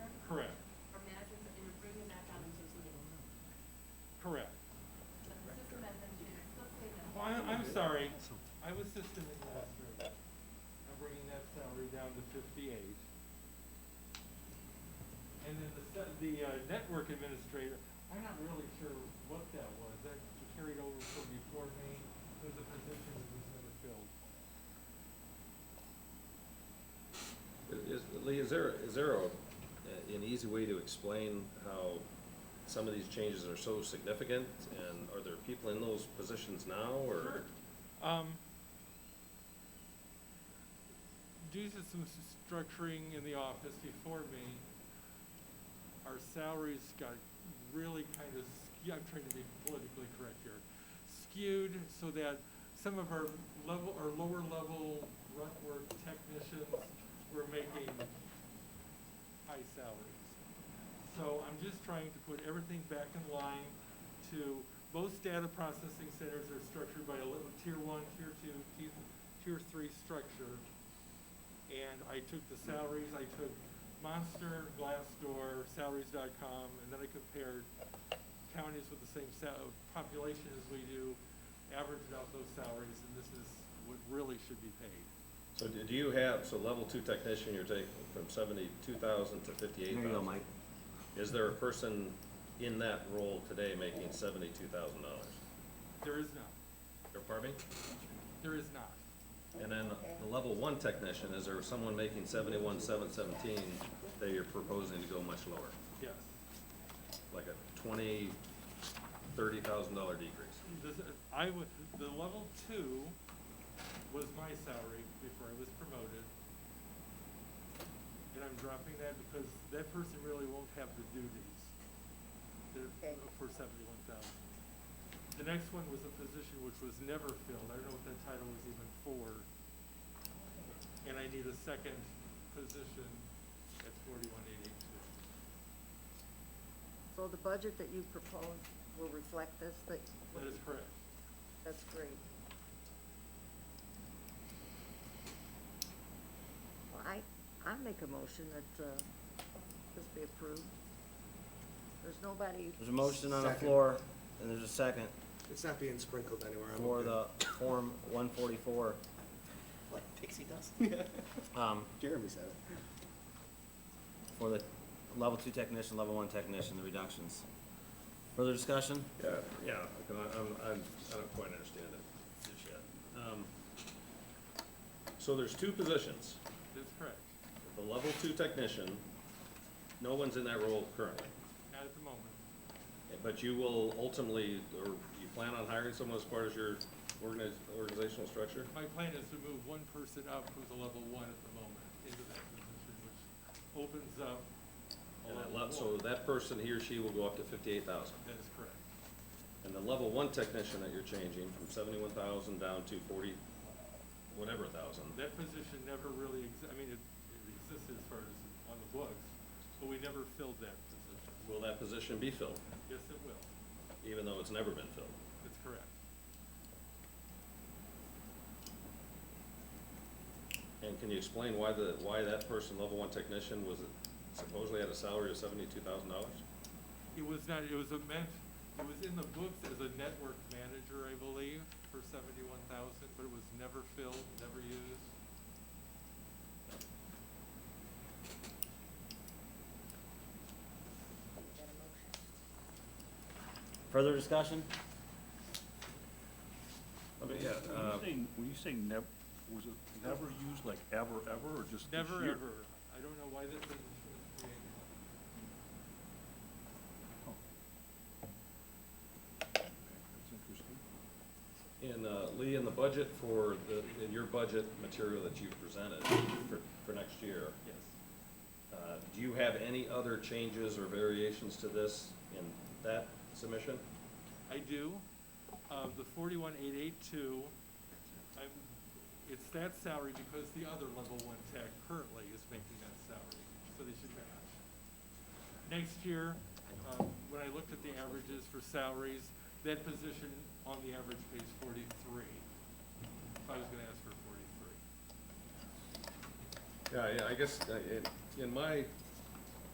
sorry, I was system administrator. I'm bringing that salary down to fifty-eight. And then the, se- the, uh, network administrator, I'm not really sure what that was, that carried over from before me, it was a position that was never filled. Is, Lee, is there, is there a, an easy way to explain how some of these changes are so significant? And are there people in those positions now, or? Sure. Um, due to some s- structuring in the office before me, our salaries got really kind of, skew- I'm trying to be politically correct here, skewed so that some of our level, our lower level grunt work technicians were making high salaries. So I'm just trying to put everything back in line to, most data processing centers are structured by a little tier one, tier two, tier, tier three structure. And I took the salaries, I took Monster, Glassdoor, salaries.com, and then I compared counties with the same sa- uh, population as we do, averaged out those salaries, and this is what really should be paid. So do do you have, so level two technician, you're taking from seventy-two thousand to fifty-eight There you go, thousand? Mike. Is there a person in that role today making seventy-two thousand dollars? There is not, Or pardon me? there is not. And then the level one technician, is there someone making seventy-one, seven seventeen that you're proposing to go much lower? Yes. Like a twenty, thirty thousand dollar decrease? This, I would, the level two was my salary before I was promoted. And I'm dropping that because that person really won't have the duties that- for seventy-one thousand. The next one was a position which was never filled. I don't know what that title was even for. And I need a second position at forty-one eighty-two. So the budget that you propose will reflect this, that, That is correct. that's great. Well, I, I make a motion that, uh, this be approved. There's nobody, There's a motion on the Second. floor, and there's a second It's not being sprinkled anywhere. I'm for okay. the Form one forty-four. Like pixie dust? Um, Jeremy said it. for the level two technician, level one technician, the reductions. Further discussion? Yeah, yeah, I'm, I'm, I'm- I don't quite understand it just yet. Um, So there's two positions, That's correct. the level two technician, no one's in that role currently. Not at the moment. But you will ultimately, or you plan on hiring someone as part of your organiz- organizational structure? My plan is to move one person up who's a level one at the moment into that position, which opens up a And that level le- so four. that person, he or she will go up to fifty-eight thousand. That is correct. And the level one technician that you're changing from seventy-one thousand down to forty, whatever thousand. That position never really, ex- I mean, it it existed as far as on the books, but we never filled that position. Will that position be filled, Yes, it will. even though it's never been filled? That's correct. And can you explain why the, why that person, level one technician, was supposedly at a salary of seventy-two thousand dollars? It was not, it was a meant, it was in the books as a network manager, I believe, for seventy-one thousand, but it was never filled, never used. Further discussion? I mean, yeah, When you uh, say, when you say nev, was it never used like ever, ever, or just this Never, year? ever. I don't know why that position was created. Oh. That's interesting. in, uh, Lee, in the budget for the, in your budget material that you presented for, for next year, Yes. uh, do you have any other changes or variations to this in that submission? I do. Uh, the forty-one eight eight two, I'm, it's that salary because the other level one tech currently is making that salary, so they should match. Next year, um, when I looked at the averages for salaries, that position on the average pays forty-three. If I was gonna ask for forty-three. Yeah, yeah, I guess, uh, in, in my